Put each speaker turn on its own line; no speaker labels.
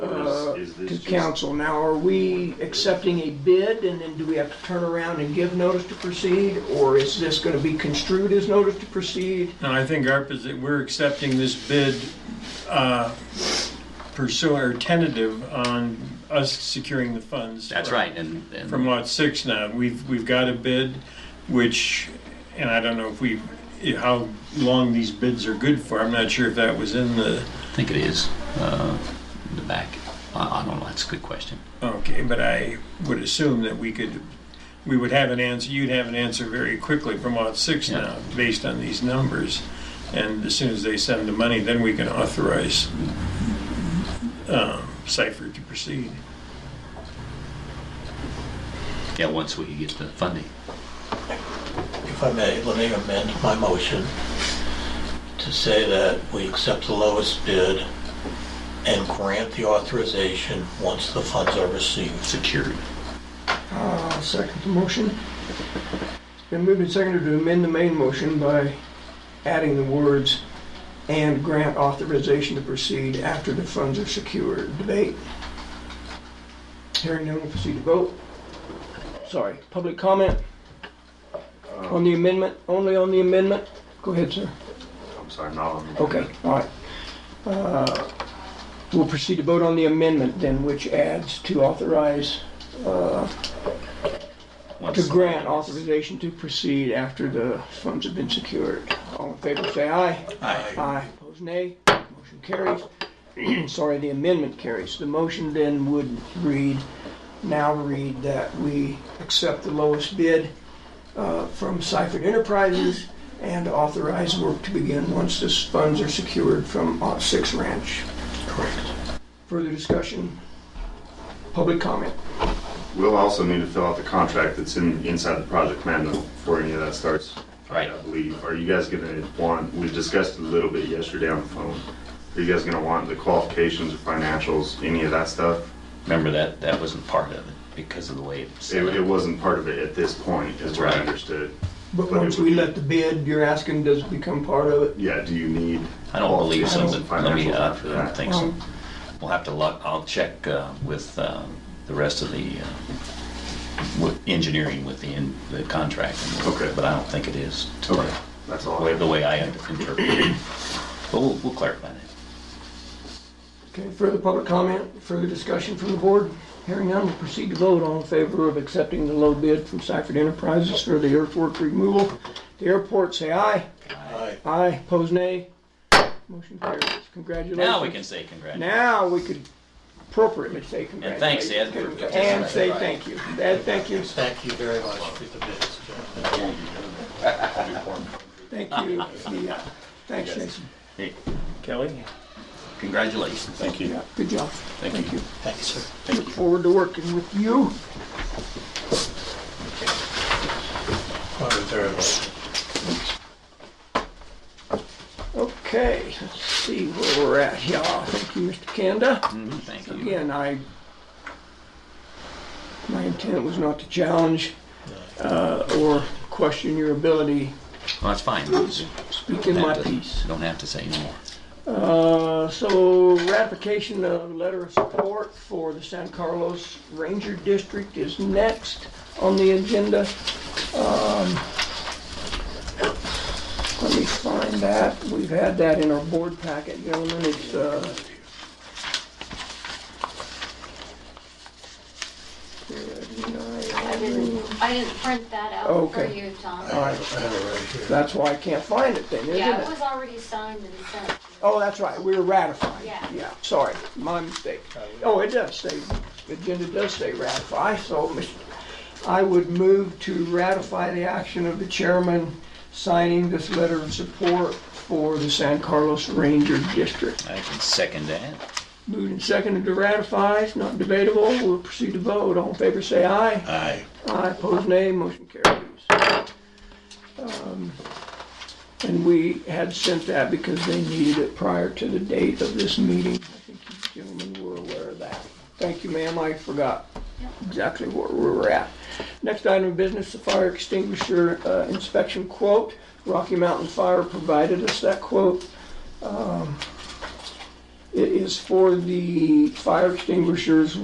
this
Uh, to
just-
council. Now, are we accepting a bid and then do we have to turn around and give notice to proceed? Or is this going to be construed as notice to proceed?
No, I think our position, we're accepting this bid uh, pursuant or tentative on us securing the funds.
That's
from-
right, and, and
From lot six now. We've, we've got a bid, which, and I don't know if we, how long these bids are good for. I'm not sure if that was in the,
I think it is uh, in the back. I, I don't know. That's a good question.
okay, but I would assume that we could, we would have an answer, you'd have an answer very quickly from lot six
Yeah.
now, based on these numbers. And as soon as they send the money, then we can authorize um, Cipher to proceed.
Yeah, once we get the funding.
If I may, let me amend my motion to say that we accept the lowest bid and grant the authorization once the funds are received.
Secured.
I'll second the motion. It's been moved and seconded to amend the main motion by adding the words "and grant authorization to proceed after the funds are secured." Debate. Hearing none, we'll proceed to vote. Sorry, public comment on the amendment, only on the amendment? Go ahead, sir.
I'm sorry, not on the.
Okay, all right. Uh, We'll proceed to vote on the amendment then, which adds to authorize uh,
Once
To grant authorization to proceed after the funds have been secured. All in favor, say aye.
Aye.
Aye. Opposed, nay. Motion carries. Sorry, the amendment carries. The motion then would read, now read that we accept the lowest bid uh, from Seifert Enterprises and authorize work to begin once the funds are secured from uh, Six Ranch.
Correct.
Further discussion? Public comment?
We'll also need to fill out the contract that's in, inside the project manual before any of that starts.
Right.
I believe, are you guys gonna want, we discussed a little bit yesterday on the phone. Are you guys gonna want the qualifications or financials, any of that stuff?
Remember that that wasn't part of it because of the way it was
It,
set
it
up.
wasn't part of it at this point, is
That's
what I
right.
understood.
But
But it
once
would
we
be-
let the bid, you're asking, does it become part of it?
Yeah, do you need?
I don't believe so,
qualifications and
but let me,
financials
uh,
after
I
that?
don't think so. We'll have to look, I'll check uh, with uh, the rest of the, uh, with engineering with the, in- the contract. and we'll-
Okay.
But I don't think it is today,
Okay, that's
the
all. I
way,
have.
the way I interpret it. But we'll, we'll clarify that.
Okay, further public comment, further discussion from the board? Hearing none, we'll proceed to vote. All in favor of accepting the low bid from Seifert Enterprises for the earthwork removal at the airport, say aye.
Aye.
Aye, pose nay. Motion carries. Congratulations.
Now we can say congratulations.
Now we could appropriately say
And thanks,
congratulations.
Ed, for
And say thank you. Ed, thank you.
Thank you very much for the bids, gentlemen.
Thank you. Yeah. Thanks, Jason.
Kelly?
Congratulations. Thank you.
Good job. Thank you.
Thank you, sir.
Look forward to working with you.
Thank you very much.
Okay, let's see where we're at. Yeah, thank you, Mr. Kanda.
Mhm, Thank you.
Again, I, my intent was not to challenge uh, or question your ability
Well, that's fine.
to speak in my piece.
Don't have to say anymore.
Uh, So ratification of letter of support for the San Carlos Ranger District is next on the agenda. Um, Let me find that. We've had that in our board packet, gentlemen. It's, uh,
I didn't, I didn't print that out for
Okay.
you,
I
Tom.
Aye.
have I have it right here.
that's why I can't find it then, isn't it?
Yeah, it was already signed and sent.
Oh, that's right, we were ratified.
Yeah.
Yeah, sorry, my mistake. Oh, it does say, the agenda does say ratify, so Mr. I would move to ratify the action of the chairman signing this letter of support for the San Carlos Ranger District.
I can second that.
Moved and seconded to ratify, it's not debatable, we'll proceed to vote, all in favor say aye.
Aye.
Aye, opposed nay, motion carries. Um, And we had sent that because they needed it prior to the date of this meeting. I think you gentlemen were aware of that. Thank you, ma'am, I forgot exactly where we were at. Next item of business, the fire extinguisher uh, inspection quote. Rocky Mountain Fire provided us that quote. Um, It is for the fire extinguishers